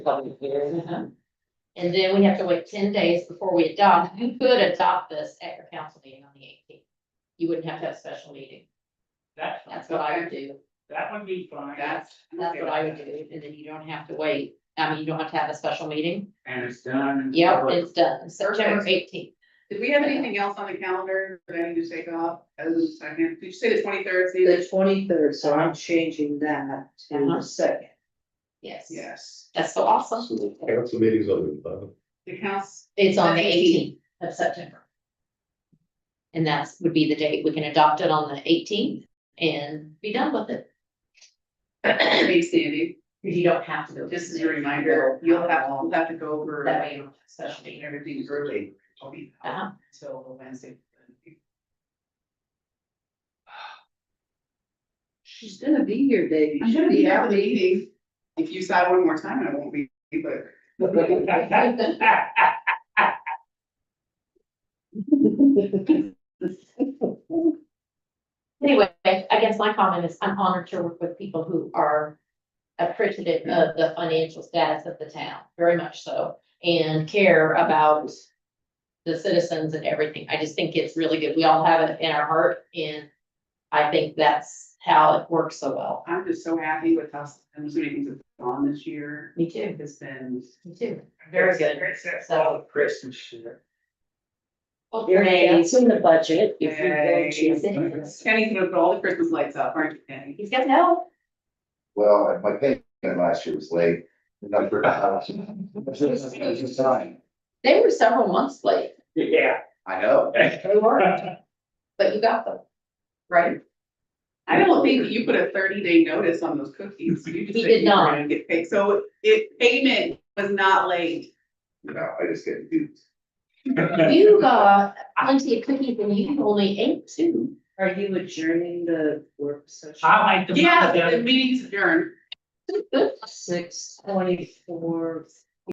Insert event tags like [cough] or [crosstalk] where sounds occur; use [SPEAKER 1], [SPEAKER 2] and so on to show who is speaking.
[SPEAKER 1] public hearing.
[SPEAKER 2] And then we have to wait ten days before we adopt. You could adopt this at your council meeting on the eighteenth. You wouldn't have to have a special meeting.
[SPEAKER 3] That,
[SPEAKER 2] That's what I would do.
[SPEAKER 3] that would be fine.
[SPEAKER 2] That's, that's what I would do. And then you don't have to wait. I mean, you don't have to have a special meeting.
[SPEAKER 3] And it's done.
[SPEAKER 2] Yep, it's done. September eighteenth.
[SPEAKER 4] Did we have anything else on the calendar that I need to take off as a second? Did you say the twenty-third,
[SPEAKER 1] The twenty-third, so I'm changing that to
[SPEAKER 2] Uh-huh.
[SPEAKER 1] the second.
[SPEAKER 2] Yes.
[SPEAKER 4] Yes,
[SPEAKER 2] That's so awesome.
[SPEAKER 5] Council meetings on the eleventh.
[SPEAKER 4] the council,
[SPEAKER 2] It's on the
[SPEAKER 4] 18th.
[SPEAKER 2] eighteenth of September. And that's would be the date. We can adopt it on the eighteenth and be done with [clears throat] it.
[SPEAKER 4] hey Sandy,
[SPEAKER 2] You don't have to go.
[SPEAKER 4] just as a reminder, you'll have, you'll have to go over
[SPEAKER 2] That way you don't have a special
[SPEAKER 4] and
[SPEAKER 2] meeting.
[SPEAKER 4] everything early. I'll be out
[SPEAKER 2] Uh-huh. [laughs]
[SPEAKER 4] until Wednesday.
[SPEAKER 1] She's gonna be here, Dave.
[SPEAKER 4] You should be at the meeting. If you sigh one more time, I won't be,
[SPEAKER 3] [laughs]
[SPEAKER 4] but.
[SPEAKER 2] Anyway, I guess my comment is I'm honored to work with people who are appreciative of the financial status of the town, very much so, and care about the citizens and everything. I just think it's really good. We all have it in our heart and I think that's how it works so well.
[SPEAKER 4] I'm just so happy with how some meetings have gone this year.
[SPEAKER 2] Me too,
[SPEAKER 4] It's been,
[SPEAKER 2] me too. Very good. So-
[SPEAKER 3] Christmas shit.
[SPEAKER 1] Your name's in the budget. if you go to-
[SPEAKER 2] He's
[SPEAKER 4] Kenny's gonna put all the Christmas lights up, aren't you, Kenny?
[SPEAKER 2] got help.
[SPEAKER 6] Well, and my payment last year was late. [laughs] and I forgot.
[SPEAKER 2] They were several months late,
[SPEAKER 3] Yeah.
[SPEAKER 6] I know.
[SPEAKER 2] they were, but you got them, right?
[SPEAKER 4] I don't think you put a thirty day notice on those cookies. You just
[SPEAKER 2] He
[SPEAKER 4] said
[SPEAKER 2] did
[SPEAKER 4] you were
[SPEAKER 2] not.
[SPEAKER 4] gonna Get paid, so it, payment was not late.
[SPEAKER 6] You know, I just get duped.
[SPEAKER 2] You got plenty of cookies and you only ate two.
[SPEAKER 1] Are you adjourning the work session?
[SPEAKER 3] I like the.
[SPEAKER 4] Yeah, the meeting's adjourned.
[SPEAKER 1] Six twenty-four